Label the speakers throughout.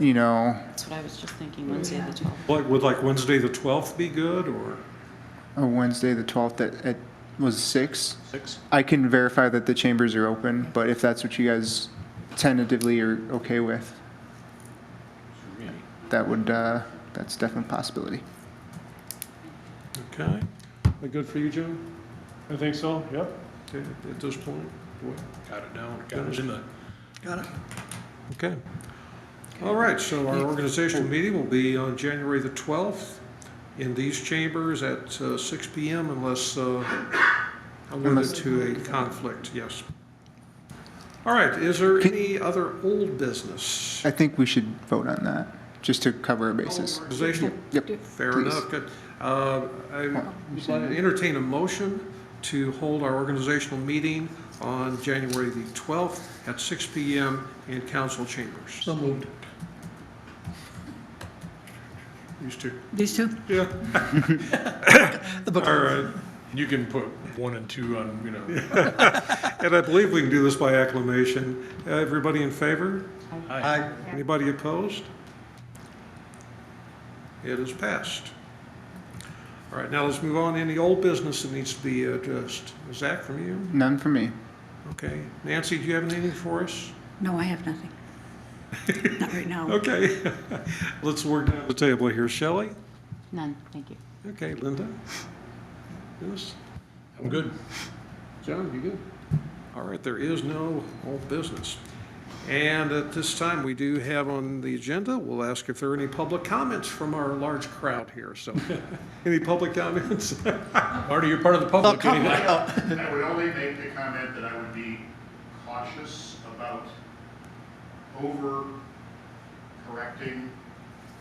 Speaker 1: you know,
Speaker 2: That's what I was just thinking, Wednesday the 12th.
Speaker 3: Like, would like Wednesday, the 12th be good or
Speaker 1: a Wednesday, the 12th at, at, was six.
Speaker 3: 6?
Speaker 1: I can verify that the chambers are open, but if that's what you guys tentatively are okay with, that would, uh, that's definitely a possibility.
Speaker 3: Okay. That good for you, Joe?
Speaker 4: I think so, yep.
Speaker 3: Okay, at this point? Got it down.
Speaker 5: Got it in the,
Speaker 6: Got it.
Speaker 3: Okay. All right, so our organizational meeting will be on January the 12th in these chambers at uh, 6 PM unless uh, alluded
Speaker 1: Unless-
Speaker 3: to a conflict, yes. All right, is there any other old business?
Speaker 1: I think we should vote on that, just to cover our bases.
Speaker 3: Organizational?
Speaker 1: Yep.
Speaker 3: Fair
Speaker 1: Please.
Speaker 3: enough, good. Uh, I would entertain a motion to hold our organizational meeting on January the 12th at 6 PM in council chambers.
Speaker 5: so moved.
Speaker 3: Used to,
Speaker 6: These two?
Speaker 3: yeah.
Speaker 6: The book.
Speaker 3: All right,
Speaker 5: You can put one and two on, you know.
Speaker 3: and I believe we can do this by acclamation. Everybody in favor?
Speaker 5: Aye.
Speaker 3: Anybody opposed? It is passed. All right, now let's move on. Any old business that needs to be addressed? Zach, from you?
Speaker 1: None for me.
Speaker 3: Okay. Nancy, do you have anything for us?
Speaker 6: No, I have nothing. Not right now.
Speaker 3: Okay. Let's work down the table here, shall we?
Speaker 2: None, thank you.
Speaker 3: Okay, Linda? Yes?
Speaker 5: I'm good.
Speaker 3: John, you good? All right, there is no old business. And at this time, we do have on the agenda, we'll ask if there are any public comments from our large crowd here, so. Any public comments?
Speaker 5: Marty, you're part of the public anyway.
Speaker 7: I would only make the comment that I would be cautious about over correcting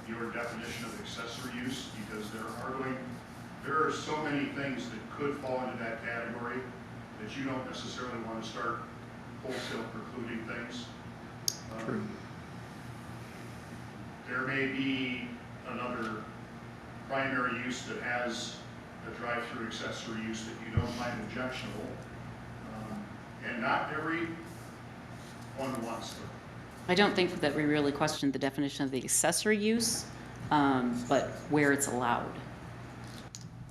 Speaker 7: your definition of accessory use, because there are going, there are so many things that could fall into that category that you don't necessarily want to start wholesale precluding things. Um,
Speaker 3: True.
Speaker 7: There may be another primary use that has a drive-through accessory use that you don't find objectionable. Um, And not every one wants them.
Speaker 2: I don't think that we really questioned the definition of the accessory use, um, but where it's allowed.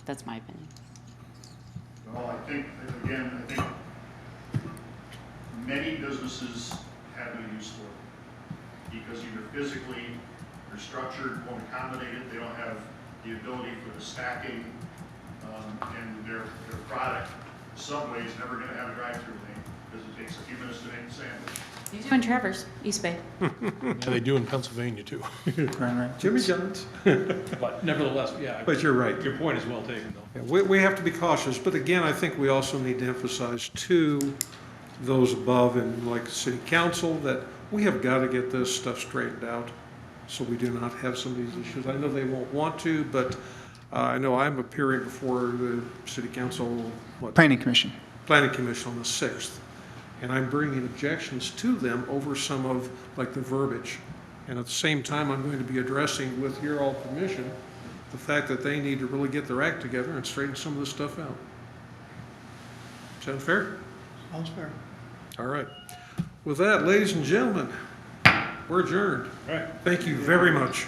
Speaker 2: That's my opinion.
Speaker 7: Well, I think, again, I think many businesses have no use for it. Because either physically, they're structured, won't accommodate it, they don't have the ability for the stacking, um, and their, their product, Subway's never gonna have a drive-through lane, because it takes a few minutes to make the sandwich.
Speaker 2: You do in Travers, East Bay.
Speaker 5: Yeah, they do in Pennsylvania too.
Speaker 1: Ryan, right?
Speaker 3: Jimmy Jones?
Speaker 5: But nevertheless, yeah,
Speaker 3: But you're right.
Speaker 5: your point is well taken though.
Speaker 3: Yeah, We, we have to be cautious, but again, I think we also need to emphasize to those above and like the city council that we have got to get this stuff straightened out so we do not have some of these issues. I know they won't want to, but uh, I know I'm appearing before the city council, what,
Speaker 1: Planning Commission.
Speaker 3: planning commission on the 6th. And I'm bringing objections to them over some of, like, the verbiage. And at the same time, I'm going to be addressing, with your all permission, the fact that they need to really get their act together and straighten some of this stuff out. Sound fair?
Speaker 6: All's fair.
Speaker 3: All right. With that, ladies and gentlemen, we're adjourned.
Speaker 5: All right.
Speaker 3: Thank you very much.